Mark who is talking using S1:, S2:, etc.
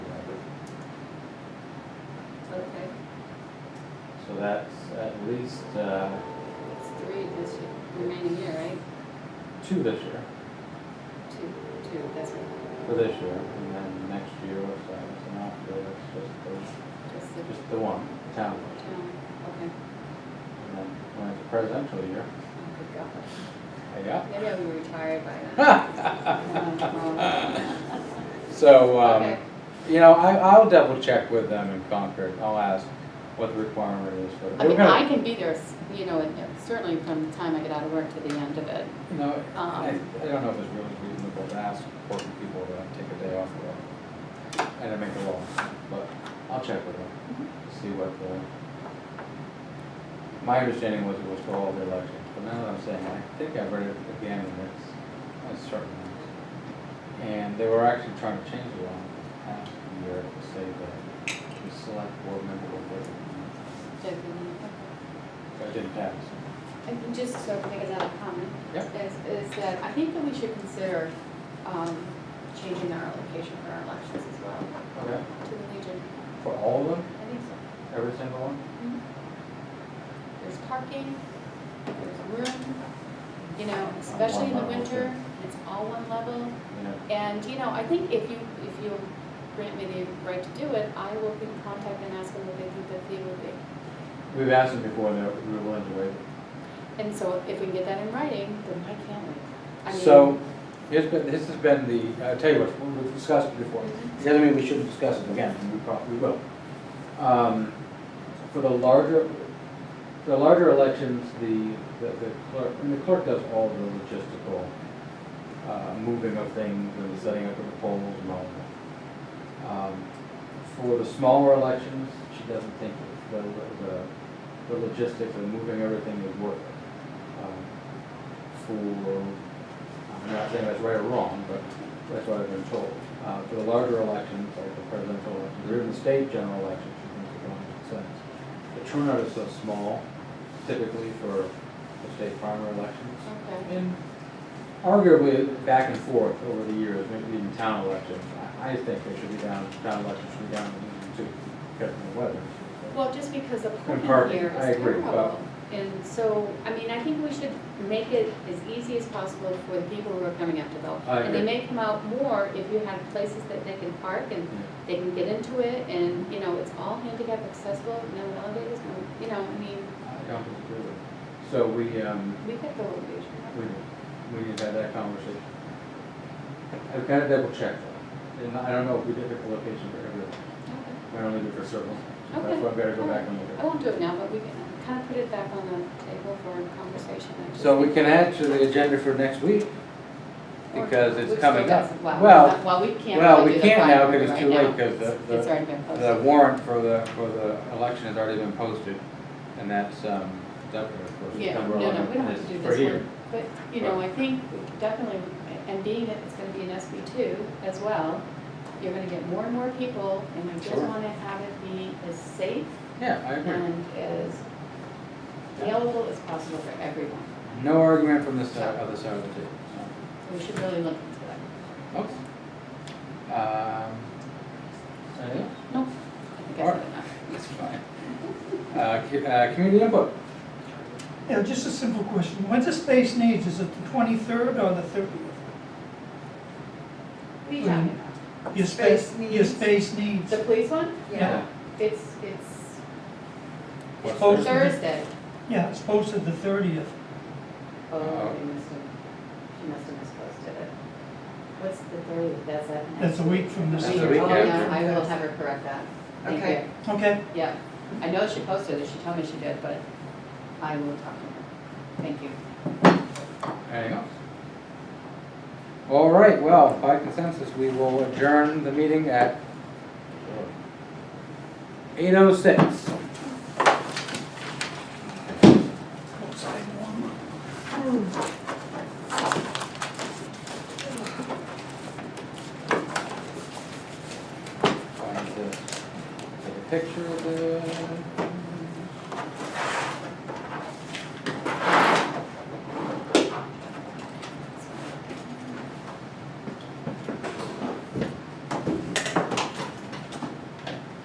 S1: so that's at least, uh,
S2: It's three this year, remaining year, right?
S1: two this year,
S2: Two, two, that's right.
S1: for this year, and then next year or so, so not good, it's just
S2: Just
S1: the,
S2: the
S1: just the one, town.
S2: town, okay.
S1: And then when it's presidential year,
S2: Oh, good God.
S1: yeah.
S2: Maybe I'll be retired by then. Um,
S1: So, um,
S2: Okay.
S1: you know, I, I'll double check with them in Concord, I'll ask what the requirement is for.
S2: I
S1: we're
S2: mean,
S1: gonna-
S2: I can be there, s- you know, and, uh, certainly from the time I get out of work to the end of it.
S1: No,
S2: Um,
S1: I, I don't know if it's really reasonable to ask working people to take a day off work and to make a law, but I'll check with them, see what the. My understanding was it was for all the elections, but now that I'm saying, I think I read it again, and it's, it's certain. And they were actually trying to change the law half the year to say that the select board member will vote. But it didn't pass.
S2: And just so I can make another comment.
S1: Yep.
S2: Is, is that I think that we should consider, um, changing our location for our elections as well,
S1: Okay.
S2: to the Legion.
S1: For all of them,
S2: I think so.
S1: every single one?
S2: There's parking, there's room, you know, especially in the
S1: level,
S2: winter,
S1: okay.
S2: it's all one level.
S1: You know,
S2: And, you know, I think if you, if you grant me the right to do it, I will be in contact and ask them what they think the fee would be.
S1: We've asked them before, they're we were willing to waive.
S2: And so if we can get that in writing, then why can't we? I mean,
S1: So, here's been, this has been the, I tell you what, we've discussed it before. It doesn't mean we shouldn't discuss it again, and we probably will. Um, For the larger, the larger elections, the, the the clerk, and the clerk does all the logistical uh, moving of things and the setting up of the polls and all that. Um, For the smaller elections, she doesn't think the, the, the logistics of moving everything is worth it. Um, For I'm not saying that's right or wrong, but that's what I've been told. Uh, For the larger elections, like the presidential elections, or even the state general elections, you think it makes sense. The turnout is so small typically for the state primary elections.
S2: Okay,
S1: And arguably, back and forth over the years, maybe even town elections, I- I think they should be down, town elections should be down to, because of the weather.
S2: well, just because the parking
S1: parking,
S2: here
S1: I
S2: is
S1: agree, but-
S2: terrible. And so, I mean, I think we should make it as easy as possible for the people who are coming up to vote.
S1: I
S2: And they
S1: agree.
S2: may come out more if you have places that they can park and they can get into it and, you know, it's all handicap accessible, no elevators, no, you know, I mean,
S1: I don't disagree with it. So we, um,
S2: we could go with Legion.
S1: We, we need to have that conversation. I've got to double check though, and I don't know if we did pick a location for every,
S2: Okay.
S1: we only did for certain. That's
S2: Okay.
S1: why I better go back and look at
S2: I
S1: it.
S2: won't do it now, but we can kind of put it back on the table for conversation. I just
S1: So we
S2: think-
S1: can add to the agenda for next week,
S2: or
S1: because
S2: we've
S1: it's
S2: still
S1: coming
S2: got
S1: up.
S2: some- Well,
S1: Well,
S2: well, we can't.
S1: well,
S2: really
S1: we
S2: do the
S1: can't now
S2: final
S1: because it's
S2: right
S1: too
S2: now.
S1: late 'cause the- the-
S2: It's already been
S1: the
S2: posted.
S1: warrant for the, for the election has already been posted, and that's, um, definitely, of course.
S2: Yeah,
S1: September
S2: no, no,
S1: 11th,
S2: we don't have
S1: and
S2: to do
S1: it's
S2: this
S1: for here.
S2: one, but, you know, I think definitely, and being that it's gonna be an SB two as well, you're gonna get more and more people, and I just
S1: Sure.
S2: wanna have it be as safe
S1: Yeah, I agree.
S2: and as available as possible for everyone.
S1: No argument from this side, other side of the table, so.
S2: So we should really look into that.
S1: Okay. Um, anything else?
S2: Nope, I think I said enough.
S1: That's fine. Uh, cu- uh, community input,
S3: Yeah, just a simple question. When's the space needs? Is it the twenty-third or the thirtieth?
S2: What are you talking about?
S3: Your
S4: Space
S3: space, your
S4: needs.
S3: space needs.
S2: The police one?
S4: Yeah,
S2: It's, it's
S1: What's
S3: Posted.
S2: Thursday.
S3: Yeah, it's posted the thirtieth.
S2: Oh,
S1: Oh.
S2: you must have, you must have misposted it. What's the thirtieth, that's a.
S3: That's a week from this
S1: That's a
S3: Thursday.
S1: week
S2: Oh, yeah,
S1: after.
S2: I will have her correct that. Thank
S4: Okay.
S2: you.
S3: Okay,
S2: Yeah, I know she posted it, she told me she did, but I will talk to her. Thank you.
S1: anything else? All right, well, by consensus, we will adjourn the meeting at eight oh six.
S3: outside one.
S1: Take a picture of it.